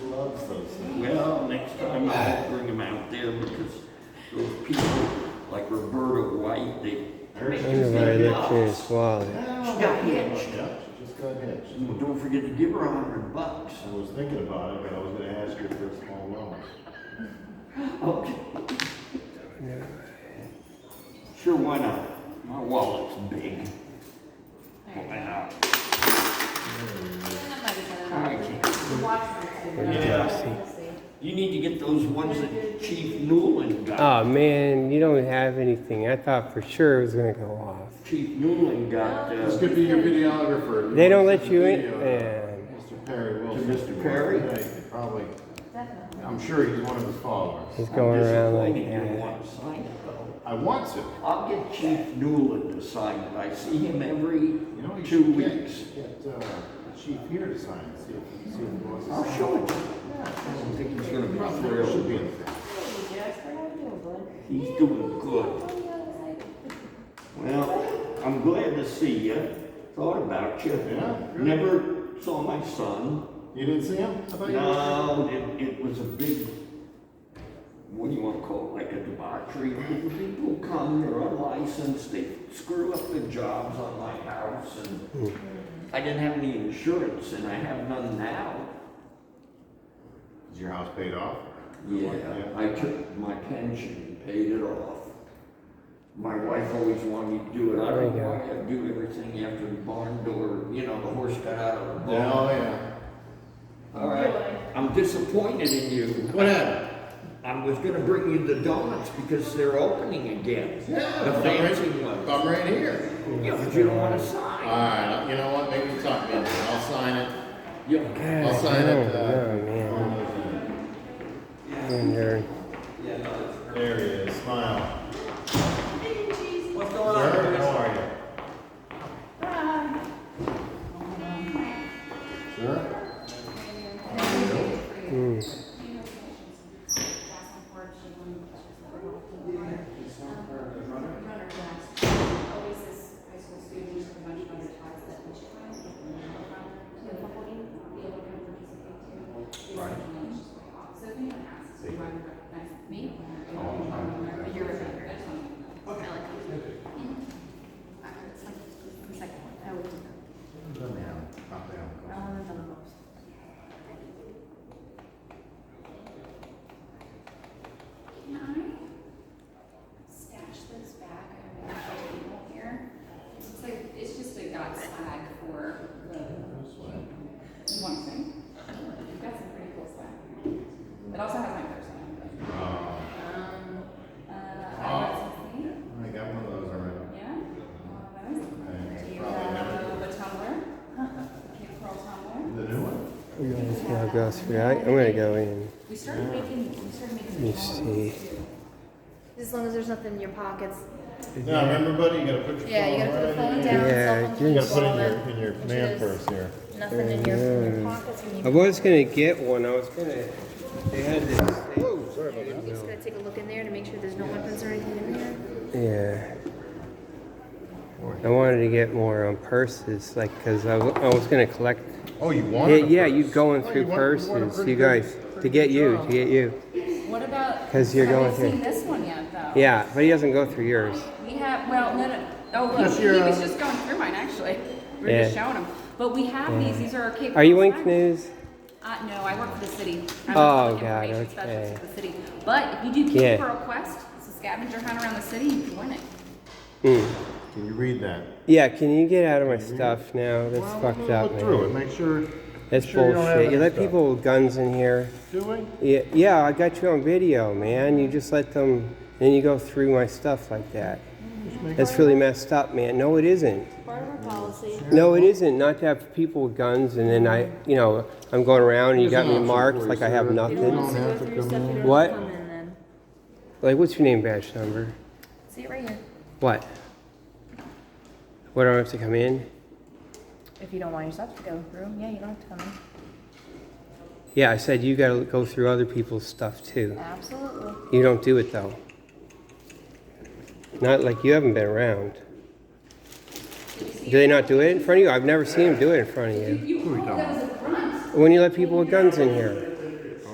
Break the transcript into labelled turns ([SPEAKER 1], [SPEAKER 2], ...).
[SPEAKER 1] Quality.
[SPEAKER 2] No,
[SPEAKER 3] She got hitched.
[SPEAKER 2] Oh, Yeah, she just got hitched.
[SPEAKER 3] Well, don't forget to give her a hundred bucks.
[SPEAKER 2] I was thinking about it, but I was gonna ask her for a small loan.
[SPEAKER 3] Okay. Sure, why not? My wallet's big. Why not? I can't. You need to get those ones that Chief Newland got.
[SPEAKER 1] Oh man, you don't have anything. I thought for sure it was gonna go off.
[SPEAKER 3] Chief Newland got, uh,
[SPEAKER 2] This
[SPEAKER 3] to
[SPEAKER 2] could be your videographer.
[SPEAKER 1] They don't let you in? Yeah.
[SPEAKER 2] Mr. Perry Wilson.
[SPEAKER 3] Mr. Perry?
[SPEAKER 2] Hey, Probably, I'm sure he's one of his followers.
[SPEAKER 1] He's going around like
[SPEAKER 3] You didn't
[SPEAKER 1] that.
[SPEAKER 3] want to sign it though.
[SPEAKER 2] I want to.
[SPEAKER 3] I'll get Chief Newland to sign it. I see him every
[SPEAKER 2] You know, you
[SPEAKER 3] two
[SPEAKER 2] should get,
[SPEAKER 3] weeks.
[SPEAKER 2] get, uh, the chief here to sign, and see if, see if he wants to
[SPEAKER 3] I'll
[SPEAKER 2] sign.
[SPEAKER 3] show him. I don't think he's gonna be
[SPEAKER 2] Probably should be in
[SPEAKER 3] thrilled.
[SPEAKER 2] the thing.
[SPEAKER 3] He's doing good. Well, I'm glad to see you. Thought about you.
[SPEAKER 2] Yeah, good.
[SPEAKER 3] Never saw my son.
[SPEAKER 2] You didn't see him? I thought you were-
[SPEAKER 3] No, it, it was a big, what do you wanna call it, like a debauchery. People come, they're unlicensed, they screw up the jobs on my house and I didn't have any insurance and I have none now.
[SPEAKER 2] Is your house paid off?
[SPEAKER 3] Yeah, I took my pension, and paid it off. My wife always wanted me to do it, I don't
[SPEAKER 1] There you go.
[SPEAKER 3] want to do everything after the barn door, you know, the horse got out of the barn.
[SPEAKER 2] Oh, yeah.
[SPEAKER 3] All right, I'm disappointed in you.
[SPEAKER 2] What happened?
[SPEAKER 3] I was gonna bring you the donuts because they're opening again.
[SPEAKER 2] Yeah,
[SPEAKER 3] The
[SPEAKER 2] I'm
[SPEAKER 3] fancy
[SPEAKER 2] right,
[SPEAKER 3] ones.
[SPEAKER 2] I'm right here.
[SPEAKER 3] Yeah, but you don't wanna
[SPEAKER 2] All
[SPEAKER 3] sign.
[SPEAKER 2] right, you know what, maybe we talk about it, I'll sign it,
[SPEAKER 3] Yeah,
[SPEAKER 2] I'll
[SPEAKER 1] God,
[SPEAKER 2] sign
[SPEAKER 1] no,
[SPEAKER 2] it, uh.
[SPEAKER 1] no, man.
[SPEAKER 2] on
[SPEAKER 1] Wonder-
[SPEAKER 3] yeah, no, it's-
[SPEAKER 2] the- There he is, smile.
[SPEAKER 3] What's
[SPEAKER 2] Sir,
[SPEAKER 3] going on?
[SPEAKER 2] how
[SPEAKER 3] Chris?
[SPEAKER 2] are you? Sir?
[SPEAKER 1] Mm.
[SPEAKER 2] Come down, pop down.
[SPEAKER 4] Can I stash this back on the table here? It's like, it's just a got swag for the, you want to sing? You've got some pretty cool swag. It also has my first name.
[SPEAKER 2] Uh,
[SPEAKER 4] Um, uh,
[SPEAKER 1] Oh.
[SPEAKER 4] I got something,
[SPEAKER 2] I got one of those already.
[SPEAKER 4] yeah? Uh,
[SPEAKER 2] I
[SPEAKER 4] Do you
[SPEAKER 2] probably
[SPEAKER 4] have
[SPEAKER 2] never-
[SPEAKER 4] a tumbler? Cute pearl tumbler?
[SPEAKER 2] The new one?
[SPEAKER 1] You guys now go through. I, I'm gonna go in.
[SPEAKER 4] We started making, we started making.
[SPEAKER 1] Let me see.
[SPEAKER 5] As long as there's nothing in your pockets.
[SPEAKER 2] No, remember buddy, you gotta put your phone
[SPEAKER 5] Yeah, you gotta put the
[SPEAKER 2] right
[SPEAKER 5] phone
[SPEAKER 2] in
[SPEAKER 5] down.
[SPEAKER 2] here.
[SPEAKER 1] Yeah,
[SPEAKER 5] cell phone
[SPEAKER 2] You
[SPEAKER 1] you
[SPEAKER 5] phone
[SPEAKER 2] gotta put it in
[SPEAKER 5] wallet,
[SPEAKER 2] your, in your
[SPEAKER 5] which
[SPEAKER 2] man
[SPEAKER 5] is
[SPEAKER 2] purse here.
[SPEAKER 5] Nothing in your, in your pockets
[SPEAKER 2] Oh.
[SPEAKER 5] when you.
[SPEAKER 1] I was gonna get one. I was gonna. They had this.
[SPEAKER 2] Oh,
[SPEAKER 1] Thing.
[SPEAKER 5] I'm just gonna take a look in there to make sure there's no weapons or anything in there.
[SPEAKER 1] Yeah. I wanted to get more on purses, like, cause I, w- I was gonna collect.
[SPEAKER 2] Oh, you
[SPEAKER 1] Yeah,
[SPEAKER 2] wanted a
[SPEAKER 1] yeah,
[SPEAKER 2] purse.
[SPEAKER 1] you going
[SPEAKER 2] Oh, you
[SPEAKER 1] through
[SPEAKER 2] want- you want a
[SPEAKER 1] purses,
[SPEAKER 2] pretty
[SPEAKER 1] you
[SPEAKER 2] good-
[SPEAKER 1] guys, to
[SPEAKER 2] pretty
[SPEAKER 1] get
[SPEAKER 2] good
[SPEAKER 1] you,
[SPEAKER 2] job.
[SPEAKER 1] to get you.
[SPEAKER 4] What about?
[SPEAKER 1] 'Cause you're
[SPEAKER 4] I haven't
[SPEAKER 1] going to-
[SPEAKER 4] Seen this one yet, though.
[SPEAKER 1] Yeah, but he doesn't go through yours.
[SPEAKER 4] We have, well, no, no, oh, look,
[SPEAKER 2] Yes,
[SPEAKER 4] he
[SPEAKER 2] you're,
[SPEAKER 4] was
[SPEAKER 2] uh,
[SPEAKER 4] just going through mine, actually. We were just
[SPEAKER 1] Yeah.
[SPEAKER 4] showing him. But we have these, these are our Cape.
[SPEAKER 1] Are you
[SPEAKER 4] Coral
[SPEAKER 1] in
[SPEAKER 4] flags.
[SPEAKER 1] Canoes?
[SPEAKER 4] Uh, no, I work for the city. I'm a
[SPEAKER 1] Oh,
[SPEAKER 4] public
[SPEAKER 1] God,
[SPEAKER 4] information specialist
[SPEAKER 1] okay.
[SPEAKER 4] for the city. But if you do
[SPEAKER 1] Yeah.
[SPEAKER 4] Cape Coral Quest, it's a scavenger hunt around the city, you can win it.
[SPEAKER 1] Mm.
[SPEAKER 2] Can you read that?
[SPEAKER 1] Yeah, can you get out of my stuff now? That's
[SPEAKER 2] Well,
[SPEAKER 1] fucked
[SPEAKER 2] look
[SPEAKER 1] up,
[SPEAKER 2] Through it,
[SPEAKER 1] man.
[SPEAKER 2] make sure.
[SPEAKER 1] That's
[SPEAKER 2] make sure you don't have
[SPEAKER 1] bullshit.
[SPEAKER 2] any
[SPEAKER 1] You let
[SPEAKER 2] stuff.
[SPEAKER 1] people with guns in here.
[SPEAKER 2] Do we?
[SPEAKER 1] Yeah, yeah, I got you on video, man. You just let them, and you go through my stuff like that. That's really messed up, man. No, it isn't.
[SPEAKER 5] Part of our policy.
[SPEAKER 1] No, it isn't. Not to have people with guns, and then I, you know, I'm going around and you
[SPEAKER 2] Here's
[SPEAKER 1] got
[SPEAKER 2] an
[SPEAKER 1] me
[SPEAKER 2] option
[SPEAKER 1] marked
[SPEAKER 2] for you,
[SPEAKER 1] like I have
[SPEAKER 2] sir.
[SPEAKER 5] You
[SPEAKER 2] You
[SPEAKER 5] don't
[SPEAKER 1] nothing.
[SPEAKER 2] don't
[SPEAKER 5] want to
[SPEAKER 2] have
[SPEAKER 5] go
[SPEAKER 2] to
[SPEAKER 5] through
[SPEAKER 2] come
[SPEAKER 5] your stuff, you
[SPEAKER 2] in.
[SPEAKER 5] don't
[SPEAKER 1] What?
[SPEAKER 5] have to come in then.
[SPEAKER 1] Like, what's your name, badge number?
[SPEAKER 5] See it right here,
[SPEAKER 1] What? What do I have to come in?
[SPEAKER 5] if you don't want your stuff to go through, yeah, you don't have to come in,
[SPEAKER 1] Yeah, I said you gotta go through other people's stuff too.
[SPEAKER 5] absolutely.
[SPEAKER 1] You don't do it though. Not like you haven't been around. Do they not do it in front of you? I've never seen them do it in front of you.
[SPEAKER 4] You, you, that was a front.
[SPEAKER 1] When you let people with guns in here.